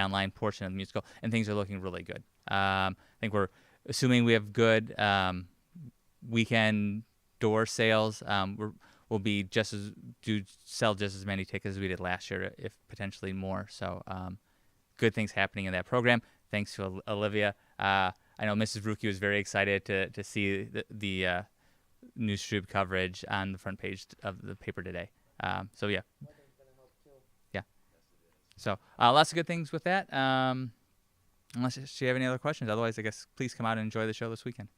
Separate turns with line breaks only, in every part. online portion of the musical, and things are looking really good. Um, I think we're assuming we have good um, weekend door sales. Um, we're, we'll be just as do sell just as many tickets as we did last year, if potentially more. So, um, good things happening in that program. Thanks to Ol- Olivia. Uh, I know Mrs. Ruki was very excited to to see the, the uh, newstube coverage on the front page of the paper today. Um, so yeah, yeah. So uh, lots of good things with that. Um, unless you have any other questions, otherwise, I guess please come out and enjoy the show this weekend.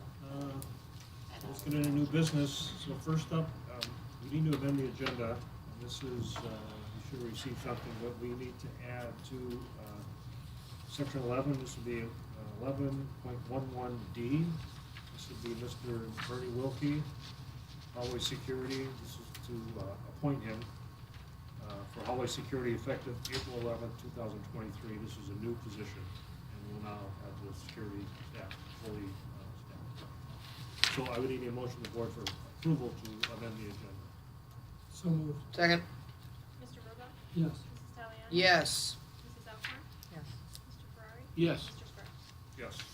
Uh, Let's get into new business. So first up, um, we need to amend the agenda. And This is, uh, you should receive something, but we need to add to uh, section 11, this would be uh, 11.11D. This would be Mr. Bernie Wilkie, hallway security. This is to uh, appoint him uh, for hallway security effective April 11th, 2023. This is a new position, and we'll now have the security staff fully uh, staffed. So I would need a motion of the board for approval to amend the agenda.
So moved.
Second,
Mr. Robach?
Yes.
Mrs. Taliani?
yes.
Mrs. Alcorn?
Yes.
Mr. Ferrari?
Yes.
Mr. Sparks?
Yes.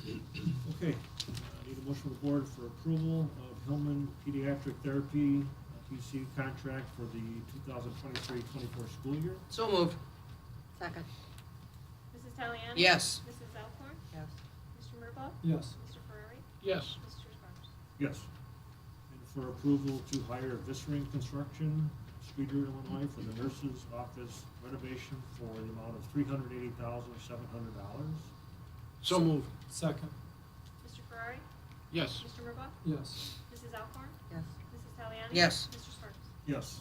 Okay, I need a motion of the board for approval of Hillman Pediatric Therapy uh, PC contract for the 2023-24 school year.
So moved. Second.
Mrs. Taliani?
Yes.
Mrs. Alcorn?
Yes.
Mr. Murbaugh?
Yes.
Mr. Ferrari?
Yes.
Mr. Sparks?
Yes. And for approval to hire Vissering Construction, Streeter, Illinois, for the nurse's office renovation for the amount of $380,700.
So moved. Second.
Mr. Ferrari?
Yes.
Mr. Murbaugh?
Yes.
Mrs. Alcorn?
Yes.
Mrs. Taliani?
Yes.
Mr. Sparks?
Yes.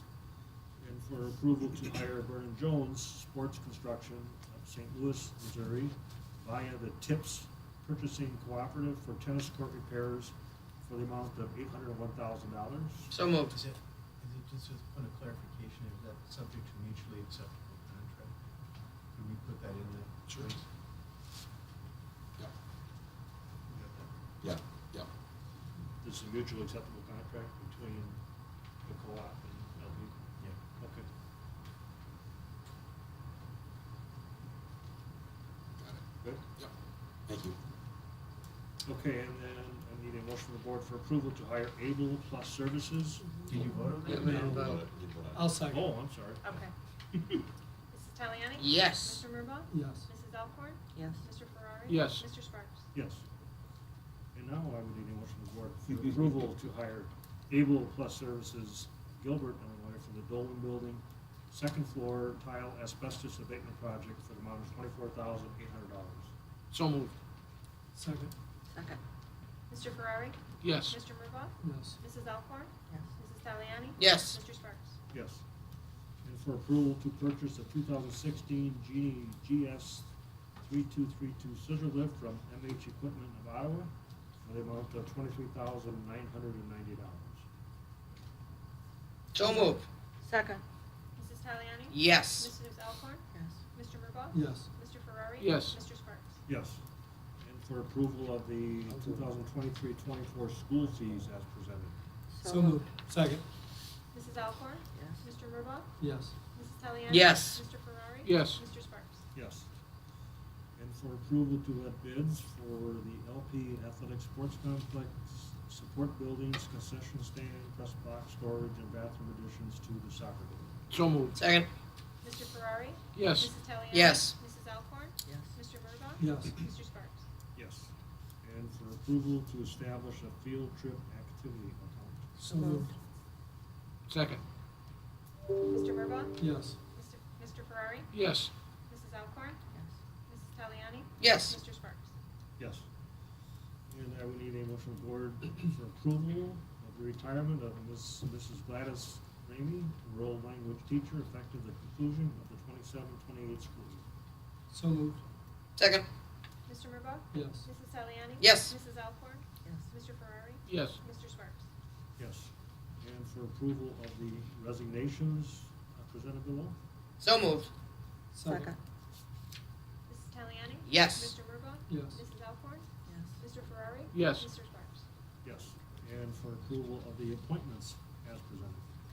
And for approval to hire Vernon Jones Sports Construction of St. Louis, Missouri via the TIPS Purchasing Cooperative for tennis court repairs for the amount of eight hundred and one thousand dollars.
So moved.
Is it, is it just a point of clarification, is that subject to mutually acceptable contract? Can we put that in the choice?
Yeah,
We got that?
yeah, yeah.
This is a mutually acceptable contract between the co-op and LB.
Yeah.
Okay.
Got it.
Good.
Yep. Thank you.
Okay, and then I need a motion from the board for approval to hire Able Plus Services.
Did you vote on that?
Yeah, we didn't
You
vote.
bought it, you bought it.
uh, I'll second.
Oh, I'm sorry.
Okay. Mrs. Taliani?
Yes.
Mr. Murbaugh?
Yes.
Mrs. Alcorn?
Yes.
Mr. Ferrari?
Yes.
Mr. Sparks?
Yes. And now I would need a motion of the board for approval to hire Able Plus Services Gilbert, Illinois, for the Dolan Building, second floor tile asbestos abatement project for the amount of twenty-four thousand eight hundred dollars.
So moved. Second.
Second.
Mr. Ferrari?
Yes.
Mr. Murbaugh?
Yes.
Mrs. Alcorn?
Yes.
Mrs. Taliani?
Yes.
Mr. Sparks?
Yes. And for approval to purchase a two thousand sixteen Genie GS three-two-three-two scissor lift from MH Equipment of Iowa for the amount of twenty-three thousand nine hundred and ninety dollars.
So moved.
Second,
Mrs. Taliani?
Yes.
Mrs. Alcorn?
Yes.
Mr. Murbaugh?
Yes.
Mr. Ferrari?
Yes.
Mr. Sparks?
Yes. And for approval of the 2023-24 school fees as presented.
So moved. Second.
Mrs. Alcorn?
Yes.
Mr. Murbaugh?
Yes.
Mrs. Taliani?
Yes.
Mr. Ferrari?
Yes.
Mr. Sparks?
Yes. And for approval to let bids for the LP Athletic Sports Complex, support buildings, concession stand, press box storage, and bathroom additions to the soccer building.
So moved.
Second.
Mr. Ferrari?
Yes.
Mrs. Taliani?
Yes.
Mrs. Alcorn?
Yes.
Mr. Murbaugh?
Yes.
Mr. Sparks?
Yes. And for approval to establish a field trip activity account.
So moved. Second.
Mr. Murbaugh?
Yes.
Mr. Mr. Ferrari?
Yes.
Mrs. Alcorn? Mrs. Taliani?
Yes.
Mr. Sparks?
Yes. And I would need a motion of the board for approval of the retirement of Miss, Mrs. Gladys Ramey, rural language teacher, effective the conclusion of the 27-28 school year.
So moved.
Second.
Mr. Murbaugh?
Yes.
Mrs. Taliani?
Yes.
Mrs. Alcorn?
Yes.
Mr. Ferrari?
Yes.
Mr. Sparks?
Yes. And for approval of the resignations uh, presented below?
So moved.
Second.
Mrs. Taliani?
Yes.
Mr. Murbaugh?
Yes.
Mrs. Alcorn?
Yes.
Mr. Ferrari?
Yes.
Mr. Sparks?
Yes. And for approval of the appointments as presented?